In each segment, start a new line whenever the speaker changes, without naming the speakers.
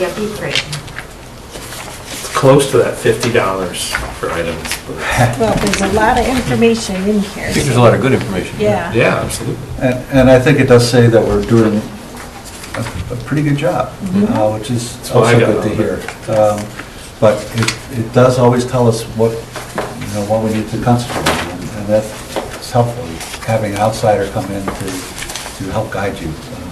Yep, be free.
close to that fifty dollars for items. but-
Well, there's a lot of information in
I think
here.
there's a lot of good information.
Yeah.
Yeah, absolutely.
And, and I think it does say that we're doing a, a pretty good job, uh, which is
That's what Oh, I
also
got
good to
out
hear.
of
Um, But it, it does always tell us what, you know, what we need to concentrate on, and that's helpful, having an outsider come in to, to help guide you. Um,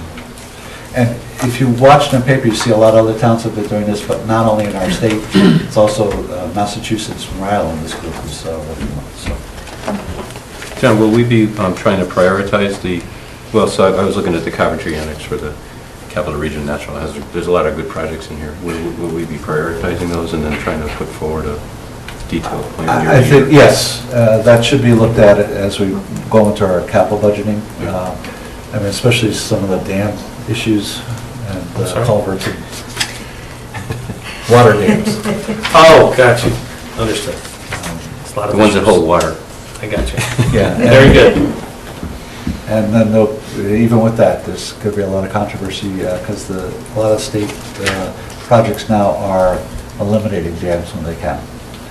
And if you watch in the paper, you see a lot of other towns have been doing this, but not only in our state, it's also uh, Massachusetts, Rhode Island, this group is, uh, working on, so.
John, will we be um, trying to prioritize the, well, so I I was looking at the Coventry Annex for the Capital Region National Hazard. There's a lot of good projects in here. Will will we be prioritizing those and then trying to put forward a detailed plan? year
I I
to
think,
year?
yes, uh, that should be looked at as we go into our capital budgeting.
Yeah.
Um, I mean, especially some of the dam issues and
I'm
uh,
sorry?
culverts and water dams. Um,
Oh, got you. Understood. It's a lot of
The ones that
issues.
hold water.
I got you.
Yeah.
Very good.
And then there'll- even with that, there's going to be a lot of controversy because the, a lot of state uh, projects now are eliminating dams when they can.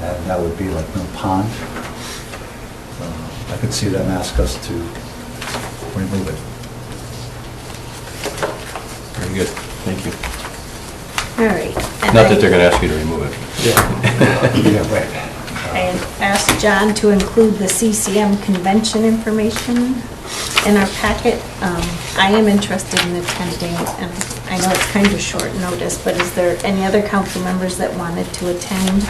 And that would be like Mill Pond. Uh, I could see them ask us to remove it.
Very good. Thank you.
All right.
Not that they're going to ask you to remove it.
Yeah, right.
I asked John to include the CCM convention information in our packet. Um, I am interested in attending, and I know it's kind of short notice, but is there any other council members that wanted to attend?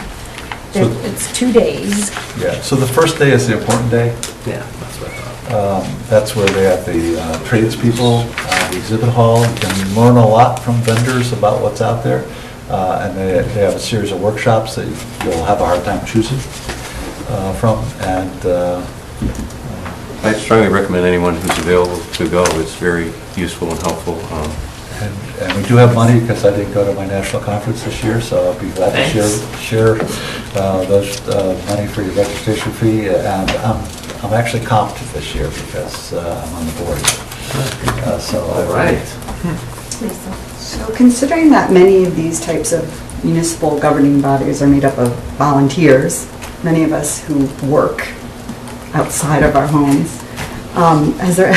There-
So-
It's two days.
Yeah, so the first day is the important day.
Yeah, that's what I thought.
Um, That's where they have the uh, tradespeople, uh, the exhibit hall. You can learn a lot from vendors about what's out there. Uh, And they they have a series of workshops that you'll have a hard time choosing uh, from. And uh,
I strongly recommend anyone who's available to go. It's very useful and helpful. Um,
and and we do have money because I didn't go to my national conference this year, so I'll be glad to share,
Thanks.
share uh, those uh, money for your registration fee. And I'm I'm actually comped this year because uh, I'm on the board. Uh, So. I-
All right.
So considering that many of these types of municipal governing bodies are made up of volunteers, many of us who work outside of our homes, um, has there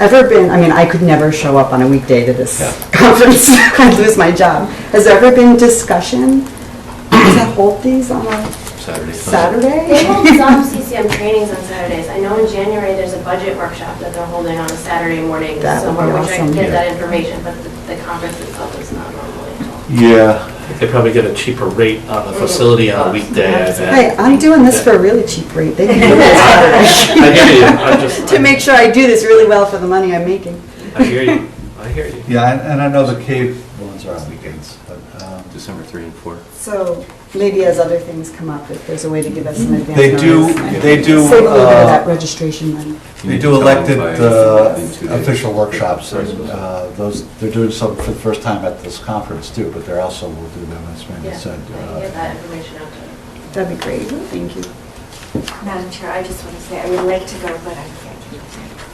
ever been, I mean, I could never show up on a weekday to this conference, I'd lose my job. Has there ever been discussion, does that hold these on a
Saturday. Sunday.
They
Saturday?
hold some CCM trainings on Saturdays. I know in January, there's a budget workshop that they're holding on a Saturday morning
That would be
somewhere, which I can
awesome.
get
Yeah.
that information, but the the conference itself is not normally held.
Yeah,
They probably get a cheaper rate on the facility on a weekday, I
Mm-hmm. Hey,
bet.
I'm doing this for a really cheap rate, they can do this
I hear you. I'm just.
to make sure I do this really well for the money I'm making.
I hear you. I hear you.
Yeah, and- and I know the cave ones are on weekends, but um,
December 3 and 4.
So maybe as other things come up, if there's a way to give us an advance.
they do,
notice,
they do,
Save a little bit of that
uh,
registration money.
they do elected uh, official workshops. and, uh, Those, they're doing some for the first time at this conference too, but they're also, will do them, as Randy
Yeah, I
said.
can get
uh,
that information out to you.
That'd be great, thank you.
Madam Chair, I just want to say, I would like to go, but I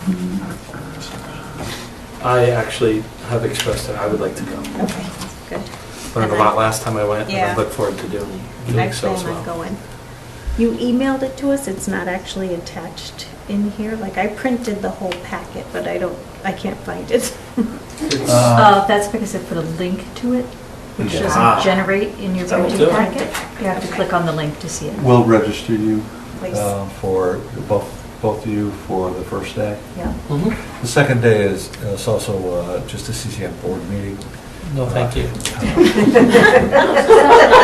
can't.
I actually have expressed that I would like to go.
Okay, good.
Learned a lot last time I went, and I
Yeah.
look forward to doing,
I
doing so as
plan on
well.
going. You emailed it to us, it's not actually attached in here, like I printed the whole packet, but I don't, I can't find it.
Uh,
Uh, That's because I put a link to it, which
Yeah.
Ah.
doesn't generate in your
That'll
printed
do it.
packet. You have to click on the link to see it.
We'll register you
Please.
uh, for, both, both of you for the first day.
Yeah.
Mhm.
The second day is, is also uh, just a CCM board meeting. Uh,
No, thank you.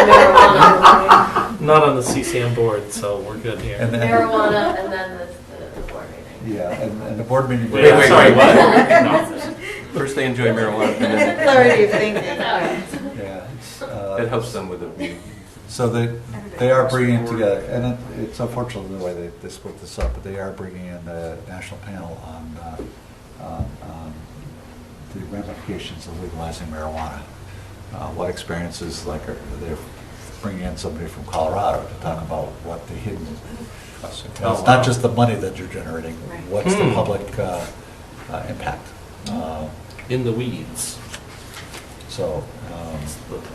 Marijuana
Not on the CCM board, so we're good here.
And then-
Marijuana and then the- the the board meeting.
Yeah, and and the board meeting.
Wait, wait,
sorry,
wait, what?
First, they enjoy marijuana, and then
Clarity of thinking.
Yeah. it's, uh,
that helps them with the
So they, they are bringing it together, and it- it's unfortunate the way they, they split this up, but they are bringing in the national panel on, uh, on on the ramifications of legalizing marijuana. Uh, What experiences, like, are- they're bringing in somebody from Colorado to talk about what the hidden, it's not just the money that you're generating, what's the
Hmm.
public uh, uh, impact? Uh,
In the weeds.
So, uh, um,
Let's look.